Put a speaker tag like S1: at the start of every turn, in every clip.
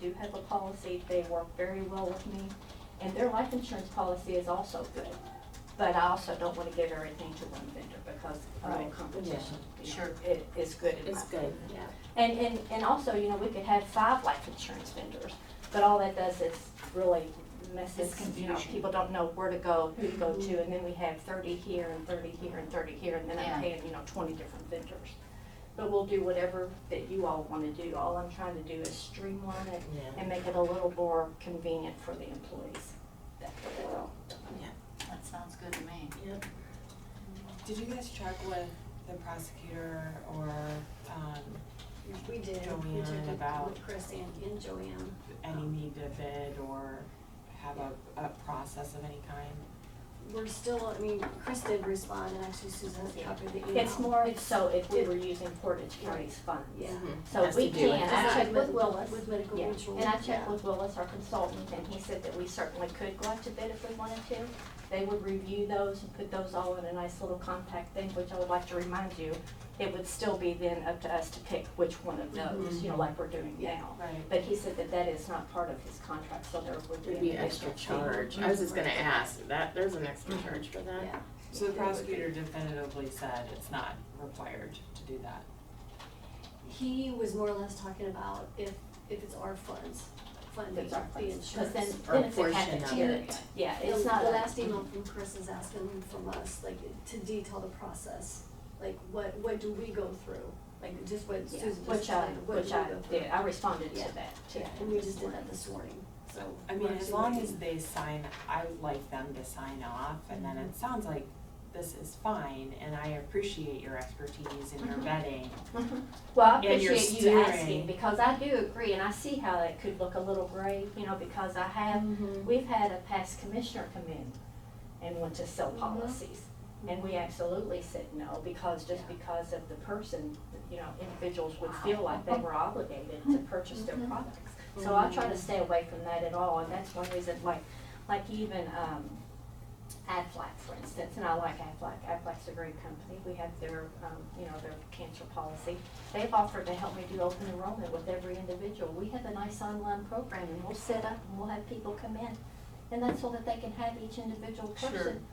S1: do have a policy, they work very well with me, and their life insurance policy is also good. But I also don't wanna give everything to one vendor because of all
S2: Right,
S1: competition. you know,
S2: sure.
S1: It, it's good in my
S2: It's good,
S1: opinion.
S2: yeah.
S1: And, and, and also, you know, we could have five life insurance vendors, but all that does is really messes,
S3: It's
S1: you know,
S3: confusion.
S1: people don't know where to go, who to go to, and then we have thirty here and thirty here and thirty here, and then
S3: Yeah.
S1: I'm paying, you know, twenty different vendors. But we'll do whatever that you all wanna do, all I'm trying to do is streamline it
S2: Yeah.
S1: and make it a little more convenient for the employees. That's all.
S3: That sounds good to me.
S4: Did you guys check with the prosecutor or, um,
S2: We did, we
S4: Joanne
S2: took it
S4: about-
S2: with Chris and, and Joanne.
S4: any need to bid or have a, a process of any kind?
S2: We're still, I mean, Chris did respond and actually Susan copied the email.
S1: It's more so if we
S2: it-
S1: were using Portage County's funds.
S2: Yeah.
S1: So
S5: Has
S1: we
S5: to do
S1: can,
S5: with-
S1: I
S2: Just like
S1: checked with Willis.
S2: With medical
S1: Yeah,
S2: mutual.
S1: and I checked
S2: yeah.
S1: with Willis, our consultant, and he said that we certainly could go out to bid if we wanted to. They would review those and put those all in a nice little compact thing, which I would like to remind you, it would still be then up to us to pick which one of those,
S5: Mm-hmm.
S1: you know, like we're doing now.
S4: Right.
S1: But he said that that is not part of his contract, so there would be.
S5: There'd
S1: an
S5: be an extra
S1: additional fee.
S5: charge. I was just gonna ask, that, there's an extra charge for that?
S2: Yeah.
S4: So the prosecutor definitively said it's not required to do that.
S2: He was more or less talking about if, if it's our funds, funding
S1: That's our
S2: the
S1: funds.
S2: insurance.
S1: 'Cause then,
S5: Or
S1: then it's a
S5: portion of
S1: cafeteria.
S5: it.
S1: Yeah,
S2: The-
S1: it's not
S2: The
S1: a-
S2: last email from Chris is asking from us, like, to detail the process, like, what, what do we go through? Like, just what
S1: Yeah,
S2: Susan just
S1: Which I,
S2: said, what do
S1: which
S2: we
S1: I
S2: go through?
S1: did, I responded
S2: Yeah.
S1: to that, too.
S2: Yeah, and we just did that this morning, so.
S4: I
S2: we're
S4: mean, as
S2: actually
S4: long
S2: waiting.
S4: as they sign, I would like them to sign off, and then
S5: Mm-hmm.
S4: it sounds like this is fine, and I appreciate your expertise and your
S5: Mm-hmm.
S1: Mhm.
S4: vetting.
S1: Well, I
S4: Yeah, you're
S1: appreciate you asking,
S4: steering.
S1: because I do agree, and I see how it could look a little gray, you know, because I have, we've had a past commissioner come in and want to sell
S2: Mhm.
S1: policies, and we absolutely said no, because, just
S2: Yeah.
S1: because of the person, you know, individuals would feel like they were obligated to purchase their
S2: Mhm.
S1: products. So I try to stay away from that at all, and that's one reason, like, like even, um, Aflac, for instance, and I like Aflac, Aflac's a great company, we have their, um, you know, their cancer policy. They've offered to help me do open enrollment with every individual, we have a nice online program, and we'll set up, and we'll have people come in, and that's so that they can have each individual
S5: Sure.
S1: person,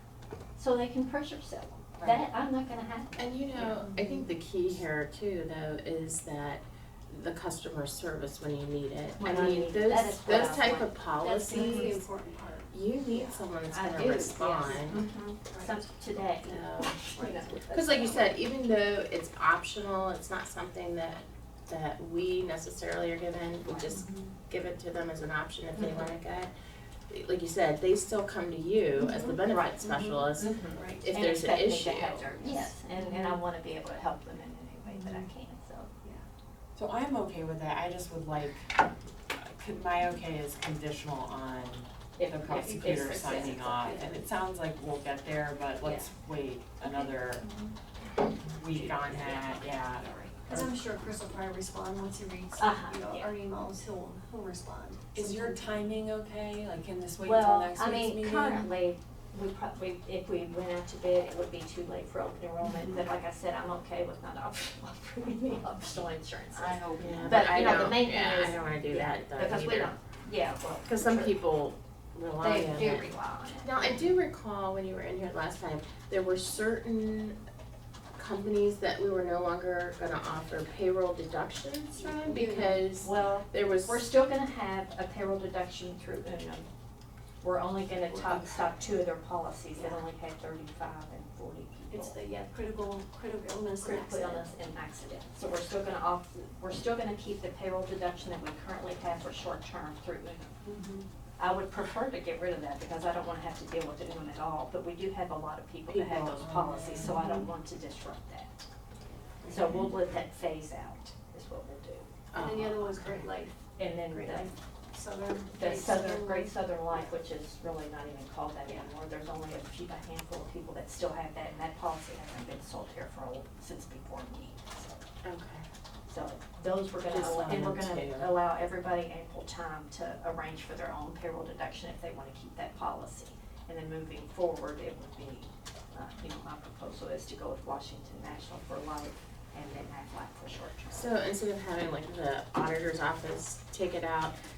S1: so they can pressure sell them.
S4: Right.
S1: That, I'm not gonna have that.
S5: And you know, I think the key here too, though, is that the customer service when you need it. I
S1: When I
S5: mean,
S1: need- that
S5: those,
S1: is what
S5: those
S1: I
S5: type
S1: want.
S5: of
S2: That's the really
S5: policies,
S2: important part.
S5: you need someone that's
S1: I
S5: gonna
S1: do,
S5: respond.
S2: right?
S1: Some, today, you
S5: No.
S1: know.
S5: Cause like you said, even though it's optional, it's not something that, that we necessarily are given, we just
S4: Mm-hmm.
S5: give it to them as an option if they
S1: Mhm.
S5: wanna get. Like you said, they still come to you as the
S4: Mm-hmm.
S5: benefit specialist
S1: Mhm.
S2: Right.
S5: if
S1: And
S5: there's an
S1: expect me
S5: issue. Mm-hmm.
S1: to have their- Yes, and, and I wanna be able to help them in any way that I can, so.
S4: So I'm okay with that, I just would like, could, my okay is conditional on
S1: if-
S4: the
S1: if- if
S4: prosecutor
S1: success-
S4: signing off, and it sounds like we'll get there, but let's wait another
S5: Mm-hmm.
S4: week on that, yeah.
S2: Cause I'm sure Chris will probably respond once he reads,
S1: Uh-huh,
S2: you know,
S1: yeah.
S2: our emails, he'll, he'll respond.
S4: Is your timing okay, like, can this wait until
S1: Well,
S4: next
S1: I
S4: week's
S1: mean,
S4: meeting?
S1: currently, we probably, if we went out to bid, it would be too late for open enrollment, but like I said, I'm okay with not optional, approving the optional insurance.
S3: I hope
S5: Yeah,
S3: not.
S1: But,
S5: I
S1: you know, the
S5: don't-
S1: main thing
S5: yeah,
S1: is-
S5: I don't wanna do
S1: yeah,
S5: that though
S1: Because we
S5: either.
S1: don't, yeah, well.
S5: Cause some
S1: sure.
S5: people rely on
S1: They
S5: it.
S1: do rely on it.
S5: Now, I do recall when you were in here last time, there were certain companies that we were no longer gonna offer payroll deductions from because
S1: Well,
S5: there was.
S1: Mm-hmm. We're still gonna have a payroll deduction through Unum. We're only gonna top, stop two of their policies that only had thirty-five and forty
S2: It's
S1: people.
S2: the, yeah, critical, critical illness and
S1: Critical
S2: accident.
S1: illness and accident. So we're still gonna off, we're still gonna keep the payroll deduction that we currently have for short-term through Unum.
S2: Mhm.
S1: I would prefer to get rid of that because I don't wanna have to deal with Unum at all, but we do have a lot of people that have
S5: People,
S1: those policies, so I don't want to disrupt that. So we'll let that phase out, is what we'll do.
S2: And then the
S5: Oh.
S2: other one's Great Life,
S1: And then
S2: Great
S1: the
S2: Life Southern.
S1: The
S2: Great
S1: Southern, Great
S2: Life.
S1: Southern Life, which is really not even called that anymore, there's only a few, a handful of people that still have that, and that policy hasn't been sold here for, a- since before me. so-
S5: Okay.
S1: So those we're gonna,
S5: Just
S1: allow- and we're
S5: sign
S1: gonna
S5: them too.
S1: allow everybody ample time to arrange for their own payroll deduction if they wanna keep that policy. And then moving forward, it would be, uh, you know, my proposal is to go with Washington National for life and then Aflac for short term.
S5: So instead of having like the auditor's office take it out,